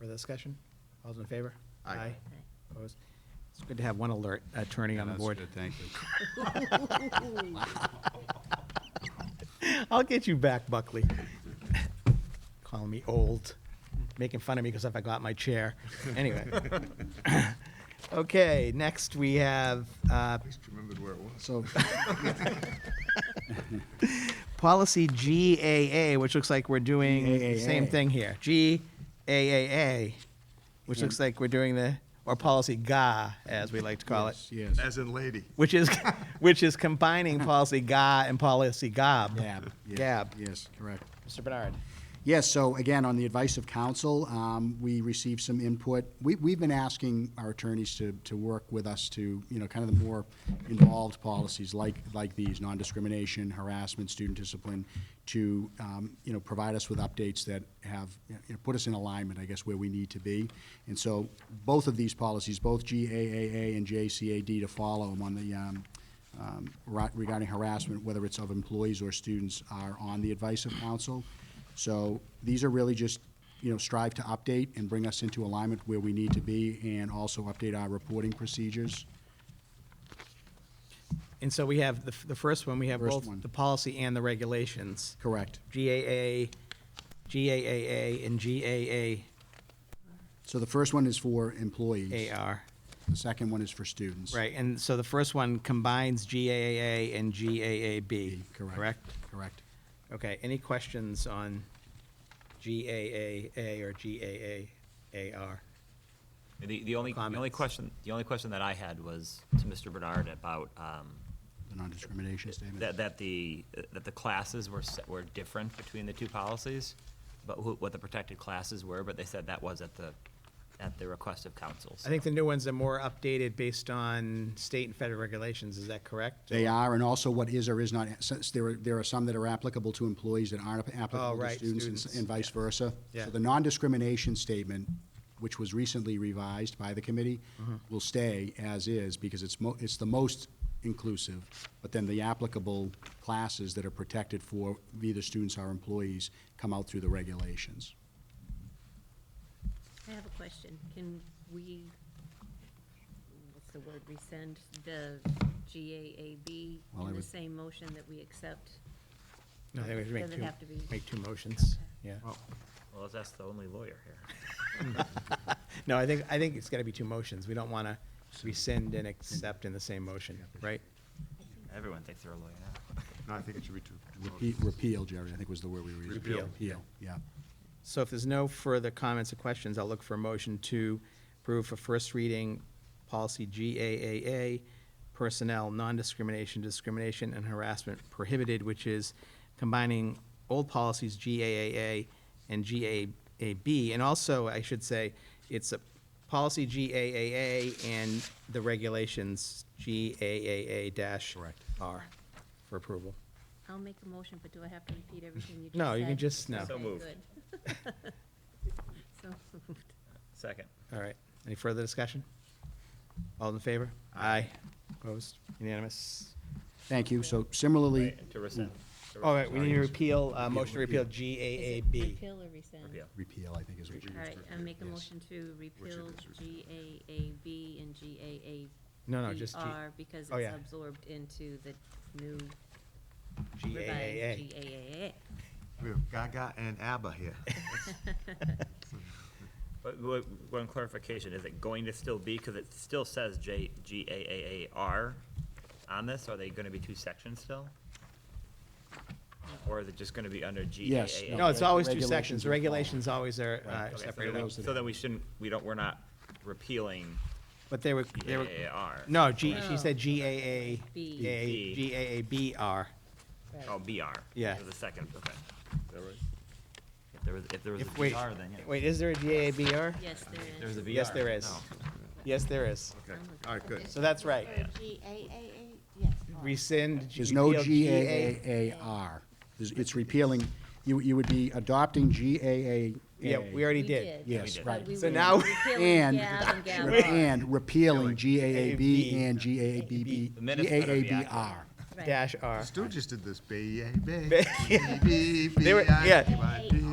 Further discussion? All those in favor? Aye. Opposed? It's good to have one alert attorney on the That's board. good, Thank you. I'll get you back, Buckley. Calling me old, making fun of me because I forgot my chair. Anyway. Okay, next we have, uh, At least remembered where it was. so. Policy GAA, which looks like we're doing the same GAA. thing here. GAA, which looks like we're doing the, or policy GA, as we like to call it. Yes. As in lady. which is which is combining policy GA and policy GOB. Gab. yes, Gab. Yes, correct. Mr. Bernard. Yes, so again, on the advice of counsel, um, we received some input. We, we've been asking our attorneys to, to work with us to, you know, kind of the more involved policies like, like these, non-discrimination, harassment, student discipline, to, um, you know, provide us with updates that have, you know, put us in alignment, I guess, where we need to be. And so both of these policies, both GAAA and JCAD to follow them on the, um, um, ra- regarding harassment, whether it's of employees or students, are on the advice of counsel. So these are really just, you know, strive to update and bring us into alignment where we need to be and also update our reporting procedures. And so we have the, f- the first one, we have First both one. the policy and the regulations. Correct. GAA, GAAA, and So the first one is for employees. GAAAR. The second one is for students. uh, Right, and so the first one combines GAA and GAAB. Correct. Correct? Correct. Okay, any questions on GAAA or GAAAR? The, the only, the only Comments. question, the only question that I had was to Mr. Bernard about, um, The non-discrimination statement. that, that the, that the classes were, se- were different between the two policies, but who, what the protected classes were, but they said that was at the, at the request of council. I think the new ones are more updated based on state and federal regulations, is that correct? They are, and also what is or is not, since there are, there are some that are applicable to employees that aren't Oh, applicable to right, students and s- students, and vice versa. Yeah. So the non-discrimination statement, which was recently revised by the committee, Mm-hmm. will stay as is because it's mo, it's the most inclusive. But then the applicable classes that are protected for either students or employees come out through the regulations. I have a question. Can we, what's the word, rescind the GAAB Well, I in the would- same motion that we accept? No, I think we should make Doesn't have to two, be- make two motions, yeah. Well, let's ask the only lawyer here. No, I think, I think it's gotta be two motions. We don't wanna rescind and accept in the same motion, right? Everyone thinks they're a lawyer now. No, I think it should be two. two Repeal, votes. repeal, Jerry, I think was the word we were using. Repeal. Repeal, yeah. So if there's no further comments or questions, I'll look for a motion to approve for first reading policy GAAA, personnel, non-discrimination, discrimination, and harassment prohibited, which is combining old policies GAAA and GAAB. And also, I should say, it's a policy GAAA and the regulations GAAA dash R for approval. I'll make a motion, but do I have to repeat everything you just said? No, you can just- no. So Okay, moved. good. So moved. Second. All right, any further discussion? All in favor? Aye. Opposed? Unanimous? Thank you, so similarly. Right, To rescind. to All right, we need to rescind. repeal, uh, motion to repeal Is it GAAB. Repeal or rescind? Repeal. Repeal, I think is what you. All right, I make a Yes. motion to repeal GAAB and GAAB. No, no, just G- Because oh, yeah. it's absorbed into the new revised GAAA. GAAA. We have Gaga and ABBA here. But wha- one clarification, is it going to still be, because it still says J, G A A A R on this, are they gonna be two sections still? Or is it just gonna be under G A A A? Yes, No, it's always two Regulations sections. The are followed. regulations always are Right. uh, Okay, so separated then we- out. So then we shouldn't, we don't, we're not repealing But they were, G they A were, A R. no, G, she Oh. said GAA, B. A- B. GAABR. Oh, B R. Yeah. The second, okay. There was- If there was, if there was a If, wait, B R, then yeah. wait, is there a GAABR? Yes, there If is. There was a B R. Yes, there is. Yes, there is. Okay, all right, good. So that's right. G-A-A-A, yes. Rescind. There's no repeal G-A-A-A-R. There's- It's repealing, you, you would be adopting G-A-A. Yeah, we already did. Yes, We did. right. We So were now- repealing And, Gab and Gab R. and repealing G-A-A-B and The minutes better be accurate. G-A-A-B-B-G-A-A-B-R. Right. Dash R. Stu just did this, B, A, B. B, B, B, They were- yeah. I, B, B.